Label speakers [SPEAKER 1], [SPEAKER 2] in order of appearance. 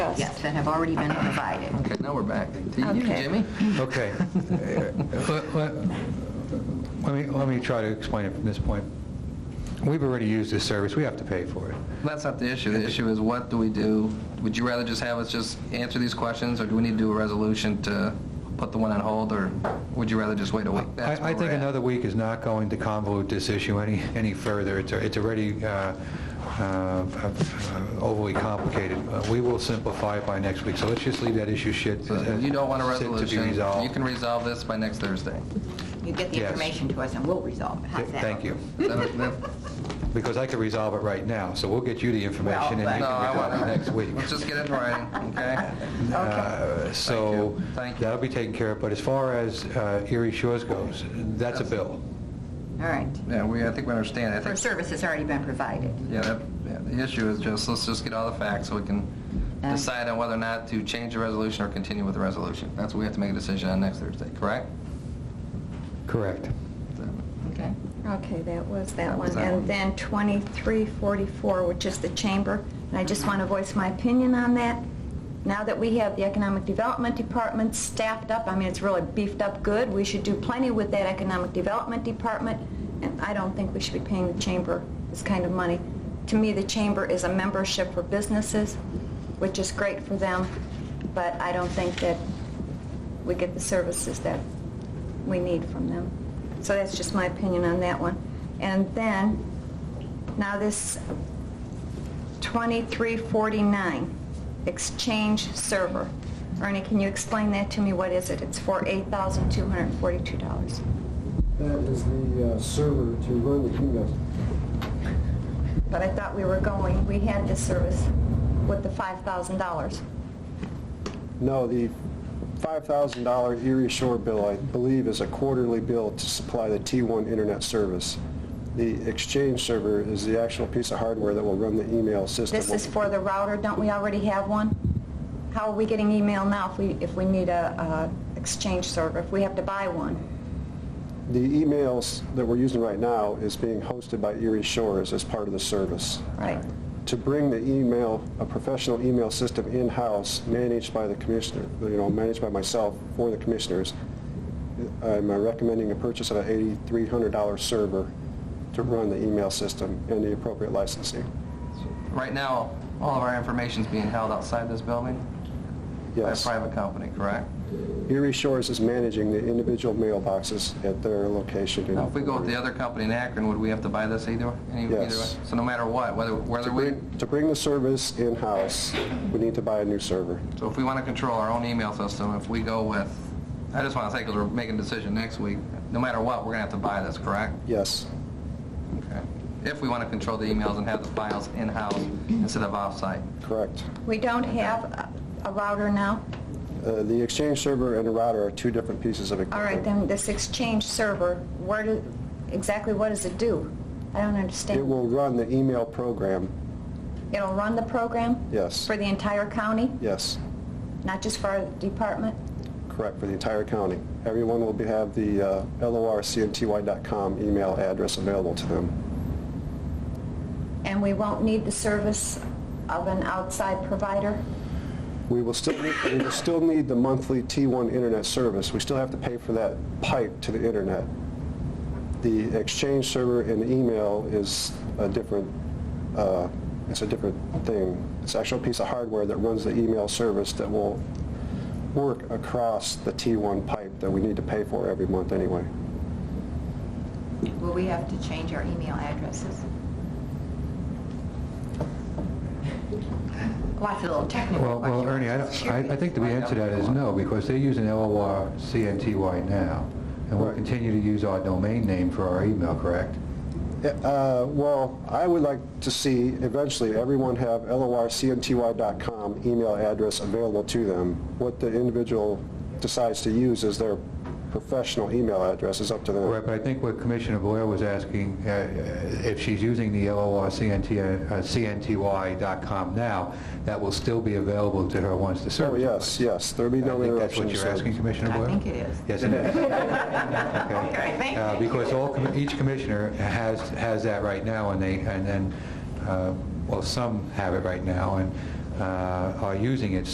[SPEAKER 1] details.
[SPEAKER 2] Yes, that have already been provided.
[SPEAKER 3] Okay, now we're back to you,
[SPEAKER 1] Okay.
[SPEAKER 3] Jimmy.
[SPEAKER 4] Okay. Let- Let let me, let me try to explain it from this point. We've already used this service, we have to pay for it.
[SPEAKER 3] That's not the issue. The issue is what do we do? Would you rather just have us just answer these questions, or do we need to do a resolution to put the one on hold, or would you rather just wait a week? That's where
[SPEAKER 4] I I think
[SPEAKER 3] we're at.
[SPEAKER 4] another week is not going to convolute this issue any, any further. It's it's already uh, uh, overly complicated. Uh, We will simplify it by next week, so let's just leave that issue shit. uh,
[SPEAKER 3] So You don't want a
[SPEAKER 4] sit
[SPEAKER 3] resolution.
[SPEAKER 4] To be
[SPEAKER 3] You
[SPEAKER 4] resolved.
[SPEAKER 3] can resolve this by next Thursday.
[SPEAKER 2] You get the
[SPEAKER 4] Yes.
[SPEAKER 2] information to us and we'll resolve it. How's that?
[SPEAKER 4] Thank you,
[SPEAKER 3] Is that- that-
[SPEAKER 4] because I could resolve it right now, so we'll get you the information and
[SPEAKER 2] but-
[SPEAKER 4] you
[SPEAKER 3] No,
[SPEAKER 4] can
[SPEAKER 3] I
[SPEAKER 4] resolve
[SPEAKER 3] want,
[SPEAKER 4] it next week.
[SPEAKER 3] let's just get it in writing, okay?
[SPEAKER 4] Uh, So
[SPEAKER 3] you. Thank you.
[SPEAKER 4] that'll be taken care of, but as far as uh, Erie Shores goes, that's a bill.
[SPEAKER 2] All right.
[SPEAKER 3] Yeah, we, I think we understand. I
[SPEAKER 2] Her
[SPEAKER 3] think
[SPEAKER 2] service has already been provided.
[SPEAKER 3] Yeah, that, yeah, the issue is just, let's just get all the facts so we can
[SPEAKER 2] Okay.
[SPEAKER 3] decide on whether or not to change the resolution or continue with the resolution. That's what we have to make a decision on next Thursday, correct?
[SPEAKER 4] Correct.
[SPEAKER 3] Okay.
[SPEAKER 1] Okay, that was that
[SPEAKER 3] That was
[SPEAKER 1] one.
[SPEAKER 3] that one.
[SPEAKER 1] And then 2344, which is the chamber, and I just want to voice my opinion on that. Now that we have the Economic Development Department staffed up, I mean, it's really beefed up good, we should do plenty with that Economic Development Department, and I don't think we should be paying the chamber this kind of money. To me, the chamber is a membership for businesses, which is great for them, but I don't think that we get the services that we need from them. So that's just my opinion on that one. And then, now this 2349, exchange server. Ernie, can you explain that to me? What is it? It's for $8,242.
[SPEAKER 5] That is the uh, server to run the keynote.
[SPEAKER 1] But I thought we were going, we had this service with the $5,000.
[SPEAKER 5] No, the $5,000 Erie Shore bill, I believe, is a quarterly bill to supply the T1 internet service. The Exchange server is the actual piece of hardware that will run the email system.
[SPEAKER 1] This is for the router, don't we already have one? How are we getting email now if we, if we need a, a exchange server, if we have to buy one?
[SPEAKER 5] The emails that we're using right now is being hosted by Erie Shore as, as part of the service.
[SPEAKER 1] Right.
[SPEAKER 5] To bring the email, a professional email system in-house, managed by the commissioner, you know, managed by myself for the commissioners, I'm uh, recommending a purchase of an $8,300 server to run the email system and the appropriate licensing.
[SPEAKER 3] Right now, all of our information's being held outside this building by a
[SPEAKER 5] Yes.
[SPEAKER 3] private company, correct?
[SPEAKER 5] Erie Shores is managing the individual mailboxes at their location. in-
[SPEAKER 3] Now, if we go with the other company in Akron, would we have to buy this either, any, either way?
[SPEAKER 5] Yes.
[SPEAKER 3] So no matter what, whether, whether
[SPEAKER 5] To
[SPEAKER 3] we,
[SPEAKER 5] bring- to bring the service in-house, we need to buy a new server.
[SPEAKER 3] so if we want to control our own email system, if we go with, I just want to say, because we're making a decision next week, no matter what, we're going to have to buy this, correct?
[SPEAKER 5] Yes.
[SPEAKER 3] Okay. If we want to control the emails and have the files in-house instead of off-site.
[SPEAKER 5] Correct.
[SPEAKER 1] We don't have a- a router now?
[SPEAKER 5] Uh, The Exchange server and the router are two different pieces of
[SPEAKER 1] All
[SPEAKER 5] equipment.
[SPEAKER 1] right, then this Exchange server, where do, exactly what does it do? I don't understand.
[SPEAKER 5] It will run the email program,
[SPEAKER 1] It'll run the program?
[SPEAKER 5] Yes.
[SPEAKER 1] For the entire county,
[SPEAKER 5] yes,
[SPEAKER 1] not just for our department?
[SPEAKER 5] correct, for the entire county. Everyone will be- have the uh, lorcnty.com email address available to them.
[SPEAKER 1] And we won't need the service of an outside provider?
[SPEAKER 5] We will still, need- we will still need the monthly T1 internet service. We still have to pay for that pipe to the internet. The Exchange server and email is a different, uh, it's a different thing. It's actual piece of hardware that runs the email service that will work across the T1 pipe that we need to pay for every month anyway.
[SPEAKER 2] Will we have to change our email addresses? Lots of little technical
[SPEAKER 4] Well,
[SPEAKER 2] questions.
[SPEAKER 4] well, Ernie, I don't- I I think the answer to that is no, because they're using LOR CNTY now, and we'll
[SPEAKER 5] Right.
[SPEAKER 4] continue to use our domain name for our email, correct?
[SPEAKER 5] Uh, Well, I would like to see eventually everyone have lorcnty.com email address available to them. What the individual decides to use as their professional email address is up to
[SPEAKER 4] Right,
[SPEAKER 5] them.
[SPEAKER 4] but I think what Commissioner Boyle was asking, uh, if she's using the LOR uh, CNTY.com now, that will still be available to her once the
[SPEAKER 5] Oh,
[SPEAKER 4] service...
[SPEAKER 5] yes, yes, there'll be
[SPEAKER 4] I
[SPEAKER 5] no
[SPEAKER 4] think that's
[SPEAKER 5] interruption.
[SPEAKER 4] what
[SPEAKER 5] to
[SPEAKER 4] you're asking,
[SPEAKER 5] service.
[SPEAKER 4] Commissioner
[SPEAKER 2] I
[SPEAKER 4] Boyle?
[SPEAKER 2] think it is.
[SPEAKER 4] Yes, it is.
[SPEAKER 2] Okay, thank
[SPEAKER 4] Uh,
[SPEAKER 2] you.
[SPEAKER 4] Because all, commi- each commissioner has, has that right now, and they, and then, uh, well, some have it right now, and uh, are using it,